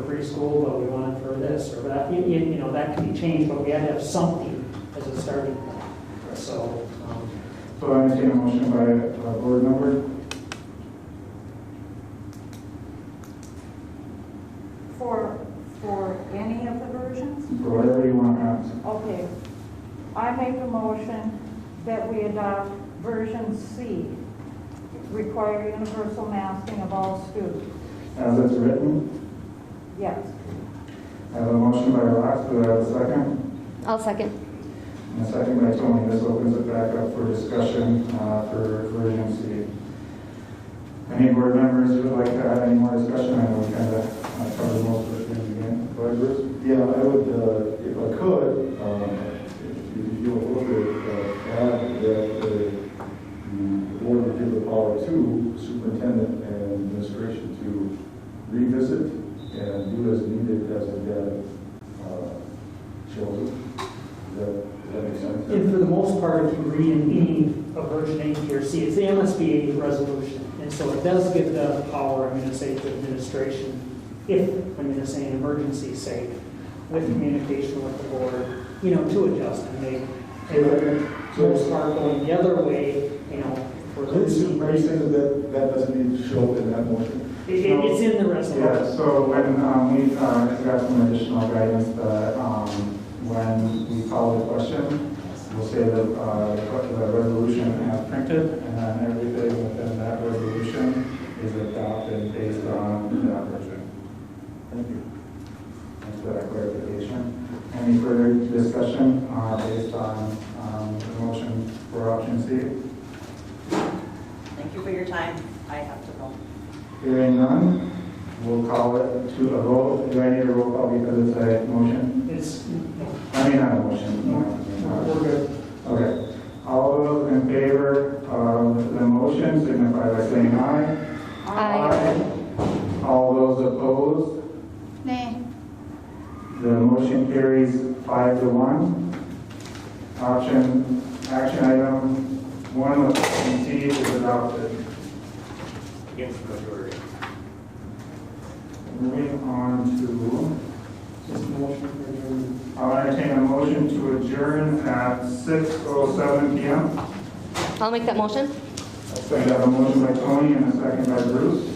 preschool, but we want it for this or that. You, you you know, that can be changed, but we had to have something as a starting point. So, um, So I entertain a motion by uh, board member. For, for any of the versions? for whatever you want uh, to add. Okay. I make a motion that we adopt version C, require universal masking of all students. As it's written, Yes. I have a motion by Rox, do I have a second? I'll second. And a second by Tony, this opens it back up for discussion uh, for version C. Any board members who would like to add any more discussion, I know we kind of covered most of the things again. Go ahead, Bruce. Yeah, I would, uh, if I could, um, if you- if you would, uh, add that uh, the board would give the power to superintendent and administration to revisit and do as needed as it had uh, chosen. Does that- does that make sense? and for the most part, if you read in any of version A, B, or C, it's the MSBA resolution. And so it does give the power, I'm going to say, to administration, if, I'm going to say, an emergency sake, with communication with the board, you know, to adjust and make. And for the most part, going the other way, you know, for Are you saying losing. It- that that doesn't need to show in that motion? it- It's in the resolution. Yeah, so when um, we uh, got some additional guidance that um, when we call the question, we'll say that uh, the resolution as printed, and then everything within that resolution is adopted based on that version. Thank you. Thanks for that clarification. Any further discussion uh, based on um, the motion for option C? Thank you for your time. I have to go. Hearing none, we'll call it to a vote. Do I need a roll call because it's a motion? It's, I mean, not a motion. we're no. good. Okay. All those in favor of the motion signify by saying aye. All those opposed, Nay. the motion carries five to one. Option, action item one of option C is adopted. Moving on to Just motion for adjournment. I'll entertain a motion to adjourn at 6:07 PM. I'll make that motion. So I have a motion by Tony and a second by Bruce.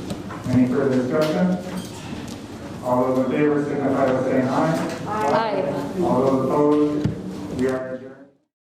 Any further discussion? All those in favor signify by saying aye. Aye. All those opposed,